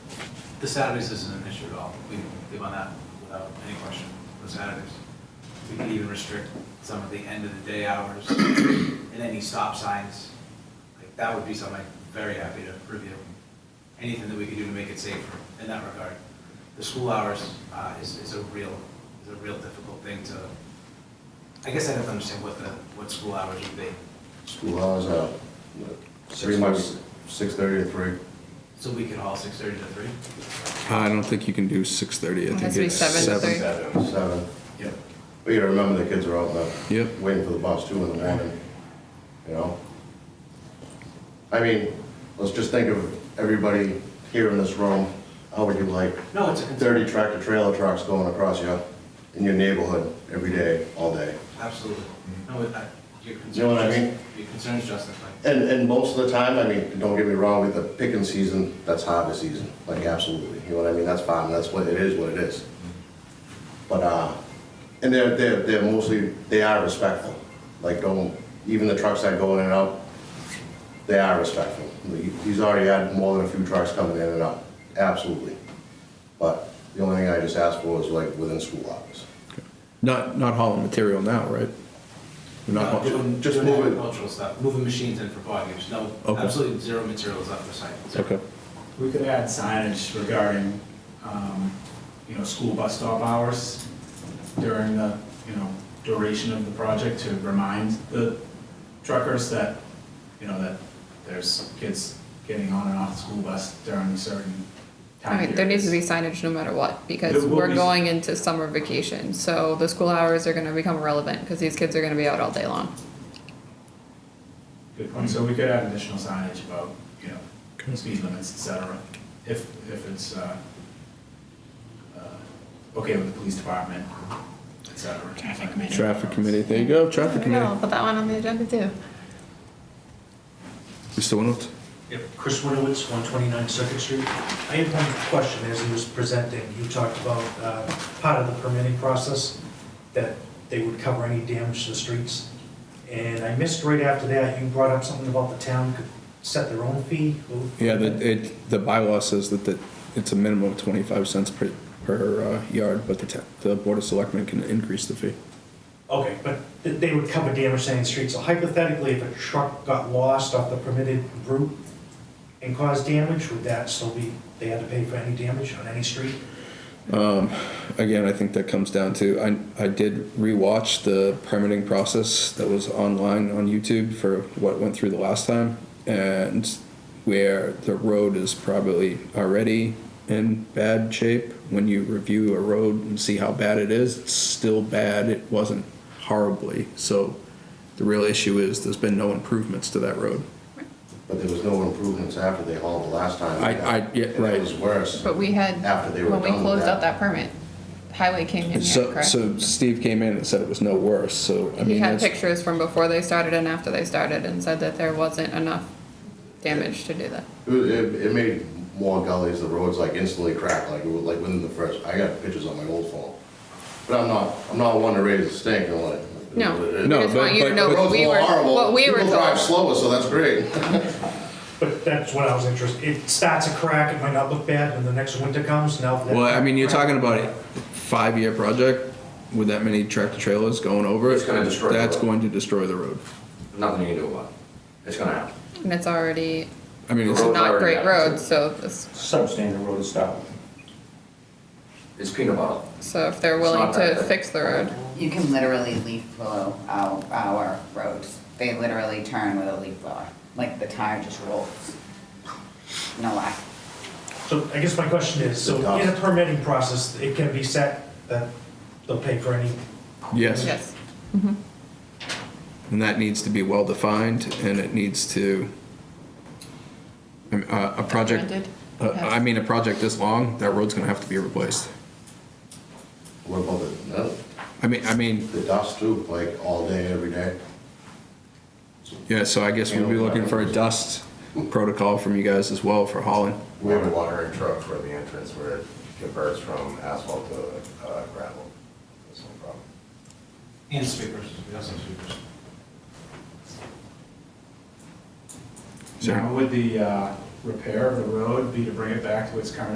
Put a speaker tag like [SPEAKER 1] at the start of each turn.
[SPEAKER 1] The Saturdays isn't an issue at all. We can leave on that without any question, the Saturdays. We can even restrict some of the end of the day hours and any stop signs. Like, that would be something I'm very happy to review. Anything that we could do to make it safer in that regard. The school hours uh, is, is a real, is a real difficult thing to, I guess I don't understand what the, what school hours would be.
[SPEAKER 2] School hours are, what, three months, six thirty to three.
[SPEAKER 1] So we could haul six thirty to three?
[SPEAKER 3] I don't think you can do six thirty. I
[SPEAKER 4] It
[SPEAKER 3] think
[SPEAKER 4] has to be
[SPEAKER 3] it's
[SPEAKER 4] seven to
[SPEAKER 3] seven.
[SPEAKER 4] three.
[SPEAKER 2] Seven. Yep. But you gotta remember the kids are out now,
[SPEAKER 3] Yep.
[SPEAKER 2] waiting for the bus two in the morning, you know? I mean, let's just think of everybody here in this room, how would you like
[SPEAKER 1] No, it's a concern.
[SPEAKER 2] thirty tractor trailer trucks going across you in your neighborhood every day, all day?
[SPEAKER 1] Absolutely. No, I- your concerns.
[SPEAKER 2] Mm-hmm. You know what I mean?
[SPEAKER 1] Your concerns justified.
[SPEAKER 2] And, and most of the time, I mean, don't get me wrong, with the picking season, that's harvest season, like absolutely, you know what I mean, that's fine, that's what, it is what it is. But, uh, and they're, they're, they're mostly, they are respectful, like, don't, even the trucks that go in and out, they are respectful. He- He's already had more than a few trucks coming in and out, absolutely. But the only thing I just asked for was like within school hours.
[SPEAKER 3] Not not hauling material now, right? We're not
[SPEAKER 1] No,
[SPEAKER 3] haul-
[SPEAKER 1] Uh, doing,
[SPEAKER 2] just
[SPEAKER 1] doing
[SPEAKER 2] move it.
[SPEAKER 1] agricultural stuff, moving machines in for bog use, no,
[SPEAKER 3] Okay.
[SPEAKER 1] absolutely zero materials off the site. zero.
[SPEAKER 3] okay.
[SPEAKER 5] We could add signage regarding, um, you know, school bus stop hours during the, you know, duration of the project to remind the truckers that, you know, that there's kids getting on and off the school bus during certain time
[SPEAKER 4] Alright,
[SPEAKER 5] periods.
[SPEAKER 4] there needs to be signage no matter what, because
[SPEAKER 5] There will
[SPEAKER 4] we're
[SPEAKER 5] be-
[SPEAKER 4] going into summer vacation, so the school hours are gonna become irrelevant, cause these kids are gonna be out all day long.
[SPEAKER 5] Good point, so we could add additional signage about, you know, speed limits, et cetera, if, if it's, uh, uh, okay with the police department, et cetera. Traffic committee.
[SPEAKER 3] Traffic committee. There you go. Traffic
[SPEAKER 4] I'll
[SPEAKER 3] committee.
[SPEAKER 4] put that one on the agenda too.
[SPEAKER 3] Mr. Winowitz.
[SPEAKER 6] Yep, Chris Winowitz, 129 Circuit Street. I had one question as he was presenting. You talked about uh, part of the permitting process, that they would cover any damage to the streets. And I missed right after that, you brought up something about the town could set their own fee.
[SPEAKER 3] Yeah. The it the bylaw says that that it's a minimum of twenty five cents per per uh, yard, but the ta- the board of selectmen can increase the fee.
[SPEAKER 6] Okay, but th- they would cover damage to any street. So hypothetically, if a truck got lost off the permitted route and caused damage, would that still be, they had to pay for any damage on any street?
[SPEAKER 3] Again, I think that comes down to I I did rewatch the permitting process that was online on YouTube for what went through the last time and where the road is probably already in bad shape. When you review a road and see how bad it is, it's still bad. It wasn't horribly. So the real issue is there's been no improvements to that road.
[SPEAKER 2] But there was no improvements after they hauled the last time.
[SPEAKER 3] I- I- yeah,
[SPEAKER 2] And
[SPEAKER 3] right.
[SPEAKER 2] It was worse.
[SPEAKER 4] But we had,
[SPEAKER 2] After they were
[SPEAKER 4] when we
[SPEAKER 2] done with
[SPEAKER 4] closed
[SPEAKER 2] that.
[SPEAKER 4] out that permit, highway came in here,
[SPEAKER 3] So,
[SPEAKER 4] correct?
[SPEAKER 3] so Steve came in and said it was no worse. So I
[SPEAKER 4] He
[SPEAKER 3] mean,
[SPEAKER 4] had
[SPEAKER 3] that's-
[SPEAKER 4] pictures from before they started and after they started and said that there wasn't enough damage to do that.
[SPEAKER 2] It, was- it, it made more gullies, the roads like instantly cracked, like, it was- like within the first, I got pictures on my old phone. But I'm not, I'm not one to raise a stink and like.
[SPEAKER 4] No, we
[SPEAKER 3] No,
[SPEAKER 4] just
[SPEAKER 3] but-
[SPEAKER 4] want you
[SPEAKER 3] but-
[SPEAKER 4] to know
[SPEAKER 3] but-
[SPEAKER 4] what
[SPEAKER 2] Roads
[SPEAKER 4] we
[SPEAKER 2] were
[SPEAKER 4] were,
[SPEAKER 2] horrible.
[SPEAKER 4] what we were
[SPEAKER 2] People drive slower,
[SPEAKER 4] told.
[SPEAKER 2] so that's great.
[SPEAKER 6] But that's what I was interested, it starts a crack, it might not look bad, when the next winter comes, now.
[SPEAKER 3] Well, I mean, you're talking about a five-year project with that many tractor trailers going over it.
[SPEAKER 7] It's gonna destroy the
[SPEAKER 3] That's
[SPEAKER 7] road.
[SPEAKER 3] going to destroy the road.
[SPEAKER 7] Nothing you can do about it. It's gonna happen.
[SPEAKER 4] And it's already
[SPEAKER 3] I mean, it's,
[SPEAKER 7] Road.
[SPEAKER 4] not
[SPEAKER 7] already
[SPEAKER 4] great
[SPEAKER 7] out.
[SPEAKER 4] road, so this
[SPEAKER 8] substandard road to stop.
[SPEAKER 7] It's peanut butter.
[SPEAKER 4] So if they're
[SPEAKER 7] It's
[SPEAKER 4] willing
[SPEAKER 7] not that
[SPEAKER 4] to
[SPEAKER 7] big.
[SPEAKER 4] fix the road,
[SPEAKER 9] You can literally leaf blow our, our roads. They literally turn with a leaf blower, like the tire just rolls. No lie.
[SPEAKER 6] So I guess my question is, so in a permitting process, it can be set that they'll pay for any,
[SPEAKER 3] yes.
[SPEAKER 4] yes.
[SPEAKER 3] And that needs to be well-defined and it needs to, I mean, uh, a project,
[SPEAKER 4] Documented.
[SPEAKER 3] uh, I mean, a project this long, that road's gonna have to be replaced.
[SPEAKER 2] What about the, no,
[SPEAKER 3] I mean, I mean,
[SPEAKER 2] the dust too, like all day, every day?
[SPEAKER 3] yeah, so I guess we'd be looking for a dust protocol from you guys as well for hauling.
[SPEAKER 8] We have a watering truck for the entrance where it converts from asphalt to uh, gravel. That's no problem.
[SPEAKER 1] And sweepers, we also have sweepers.
[SPEAKER 3] Sure.
[SPEAKER 5] Now, would the uh, repair of the road be to bring it back to its current